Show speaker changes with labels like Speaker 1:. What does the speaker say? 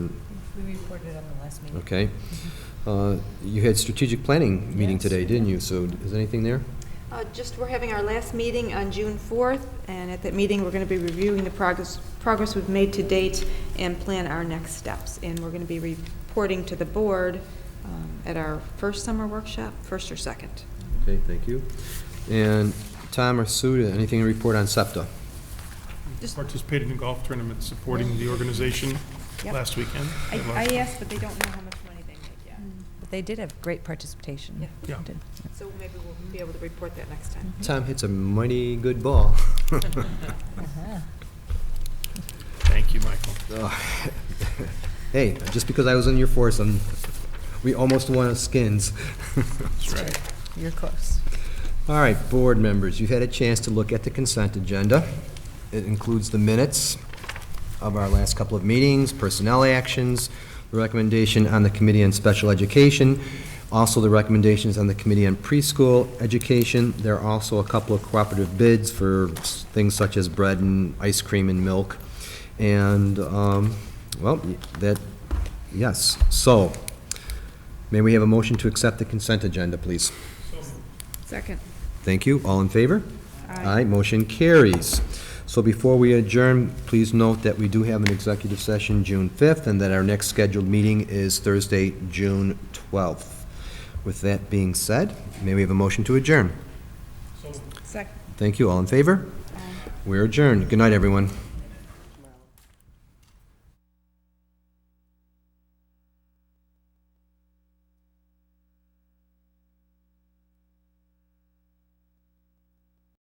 Speaker 1: We reported on the last meeting.
Speaker 2: Okay. Uh, You had strategic planning meeting
Speaker 1: Yes.
Speaker 2: today, didn't you? So is anything there?
Speaker 3: Uh, Just, we're having our last meeting on June 4th, and at that meeting, we're going to be reviewing the progress, progress we've made to date and plan our next steps. And we're going to be reporting to the board um, at our first summer workshop, first or second.
Speaker 2: Okay, thank you. And Tom or Sue, anything to report on SEPTA?
Speaker 3: Just-
Speaker 4: participated in golf tournaments supporting the organization
Speaker 3: Yep.
Speaker 4: last weekend.
Speaker 3: I I asked, but they don't know how much money they make yet.
Speaker 1: But They did have great participation.
Speaker 3: Yeah.
Speaker 4: Yeah.
Speaker 1: Did.
Speaker 3: So maybe we'll be able to report that next time.
Speaker 2: Tom hits a mighty good ball.
Speaker 1: Uh-huh.
Speaker 4: Thank you, Michael.
Speaker 2: Hey, just because I was in your foursome, we almost won as skins.
Speaker 4: That's right.
Speaker 1: You're close.
Speaker 2: All right, board members, you've had a chance to look at the consent agenda. It includes the minutes of our last couple of meetings, personnel actions, the recommendation on the Committee on Special Education, also the recommendations on the Committee on Preschool Education. There are also a couple of cooperative bids for s- things such as bread and ice cream and milk. And, um, well, that, yes. So, may we have a motion to accept the consent agenda, please?
Speaker 3: Second.
Speaker 2: Thank you. All in favor? Aye. motion carries. So before we adjourn, please note that we do have an executive session June 5th, and that our next scheduled meeting is Thursday, June 12th. With that being said, may we have a motion to adjourn?
Speaker 3: Second.
Speaker 2: Thank you. All in favor? We're adjourned. Good night, everyone.